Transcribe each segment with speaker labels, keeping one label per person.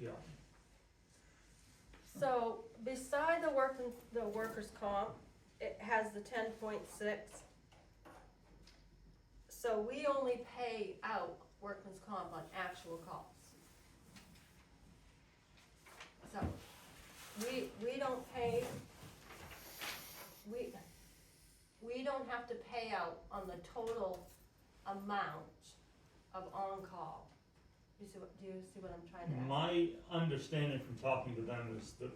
Speaker 1: yeah.
Speaker 2: So beside the work, the workers' comp, it has the ten point six. So we only pay out workman's comp on actual calls. So, we, we don't pay, we, we don't have to pay out on the total amount of on-call. You see what, do you see what I'm trying to ask?
Speaker 1: My understanding from talking to them is that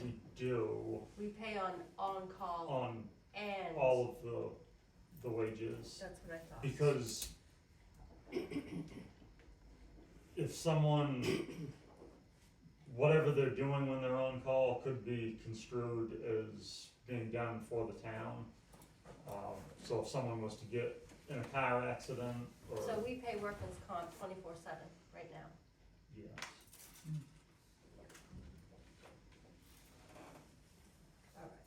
Speaker 1: we do
Speaker 2: We pay on on-call
Speaker 1: on
Speaker 2: and.
Speaker 1: all of the, the wages,
Speaker 2: That's what I thought.
Speaker 1: because if someone, whatever they're doing when they're on call could be construed as being done for the town. Um, so if someone was to get in a car accident or,
Speaker 2: So we pay workman's comp twenty-four seven right now.
Speaker 1: yes,
Speaker 2: Alright.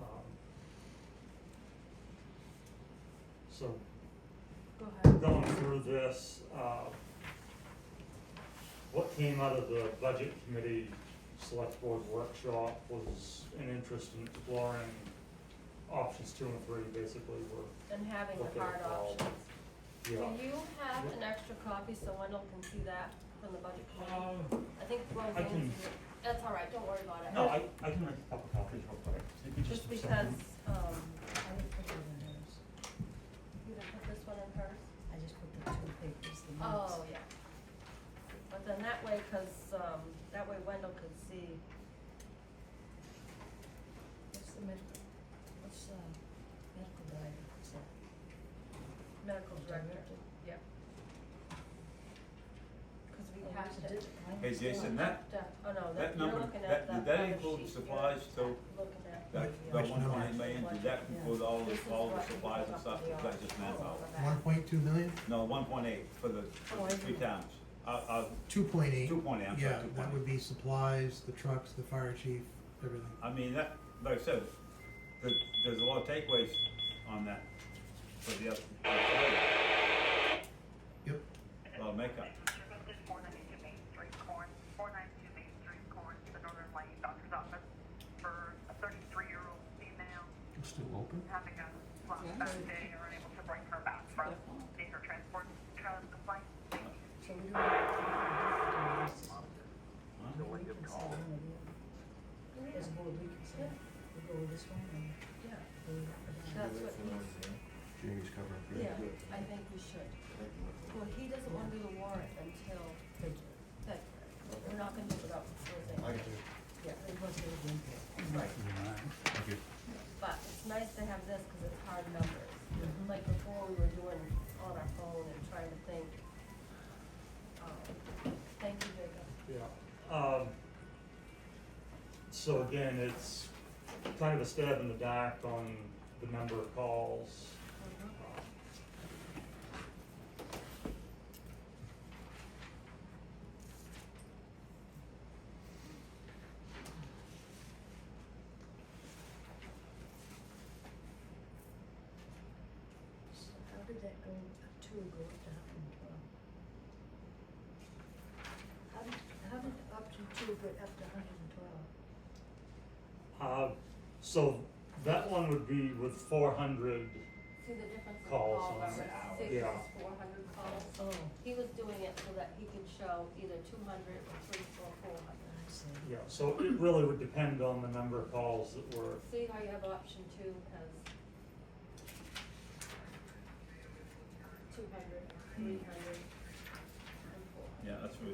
Speaker 1: um. So
Speaker 2: Go ahead.
Speaker 1: going through this, uh, what came out of the budget committee select board workshop was an interest in exploring options two and three, basically, were,
Speaker 2: And having
Speaker 1: Okay,
Speaker 2: the hard
Speaker 1: I'll-
Speaker 2: options. Do
Speaker 1: yeah.
Speaker 2: you have an extra copy so Wendell can see that from the budget committee?
Speaker 1: Uh,
Speaker 2: I think
Speaker 1: I
Speaker 2: Roseanne,
Speaker 1: can-
Speaker 2: that's alright, don't worry about it.
Speaker 1: No, I, I can make a couple copies real quick. It'd be
Speaker 2: Just
Speaker 1: a
Speaker 2: because,
Speaker 1: second.
Speaker 2: um,
Speaker 3: I would put them in hers.
Speaker 2: you can put this one in hers.
Speaker 3: I just put the two papers, the notes.
Speaker 2: Oh, yeah. But then that way, cause, um, that way Wendell could see.
Speaker 3: What's the medical, what's, uh, medical diary, what's that?
Speaker 2: Medical director,
Speaker 3: Director.
Speaker 2: yep. Cause we
Speaker 3: Oh,
Speaker 2: have
Speaker 3: it's a
Speaker 2: to,
Speaker 3: digit, right?
Speaker 4: Hey Jason, that,
Speaker 2: to- oh no, that,
Speaker 4: That
Speaker 2: you're
Speaker 4: number-
Speaker 2: looking at the
Speaker 4: that- did that
Speaker 2: other
Speaker 4: include
Speaker 2: sheet.
Speaker 4: supplies
Speaker 2: You're
Speaker 4: too?
Speaker 2: looking at.
Speaker 4: that,
Speaker 2: the
Speaker 4: that one point
Speaker 2: actual
Speaker 4: eight million,
Speaker 2: budget.
Speaker 4: did that include all
Speaker 2: This
Speaker 4: the,
Speaker 2: is
Speaker 4: all the
Speaker 2: what we
Speaker 4: supplies and
Speaker 2: took
Speaker 4: stuff,
Speaker 2: off the
Speaker 4: Is that just math
Speaker 2: article
Speaker 4: out?
Speaker 2: for that.
Speaker 5: One point two million?
Speaker 4: No, one point eight for the,
Speaker 3: Oh, I
Speaker 4: for the three
Speaker 3: see.
Speaker 4: towns, uh, uh,
Speaker 5: Two point eight.
Speaker 4: two point eight, I'm sorry,
Speaker 5: Yeah,
Speaker 4: two point
Speaker 5: that would
Speaker 4: eight.
Speaker 5: be supplies, the trucks, the fire chief, everything.
Speaker 4: I mean, that, like I said, there, there's a lot of takeaways on that for the other, for the other,
Speaker 5: Yep.
Speaker 4: a lot of makeup.
Speaker 6: Four ninety-two Main Street, Corn, four ninety-two Main Street, Corn, the Northern Light Doctor's Office for a thirty-three-year-old female
Speaker 5: Still open?
Speaker 6: having a flashback day or unable to bring her back from major transport, child complaint.
Speaker 3: So we don't have to do this.
Speaker 4: Huh?
Speaker 3: We can sell one or the other. As a board, we can sell, we go with this one and
Speaker 2: Yeah,
Speaker 3: go with that.
Speaker 2: that's what he's,
Speaker 7: Jamie's covering for
Speaker 2: yeah, I think we should. Well, he doesn't wanna do the warrant until February. We're not gonna do it without
Speaker 7: I
Speaker 2: Thursday,
Speaker 7: got you.
Speaker 3: Yeah, it was a good impact.
Speaker 7: Thank you.
Speaker 2: but it's nice to have this, cause it's hard numbers.
Speaker 3: Mm-hmm.
Speaker 2: Like before, we were doing on our phone and trying to think. Um, Thank you, Jacob.
Speaker 1: Yeah, um, so again, it's kind of a stab in the dark on the number of calls. Uh,
Speaker 2: Mm-hmm.
Speaker 3: So how did that go, uh, two go up to hundred and twelve? How did, how did option two go up to hundred and twelve?
Speaker 1: Uh, so that one would be with four hundred,
Speaker 2: See the difference in
Speaker 1: Calls
Speaker 2: call,
Speaker 1: on
Speaker 2: whether
Speaker 1: the hour.
Speaker 2: it's six
Speaker 1: Yeah.
Speaker 2: or four hundred calls.
Speaker 3: Oh,
Speaker 2: He was doing it so that he could show either two hundred or three or four hundred.
Speaker 3: I see.
Speaker 1: yeah, so it really would depend on the number of calls that were
Speaker 2: See how you have option two has two hundred, three hundred, and four hundred.
Speaker 4: Yeah, that's what,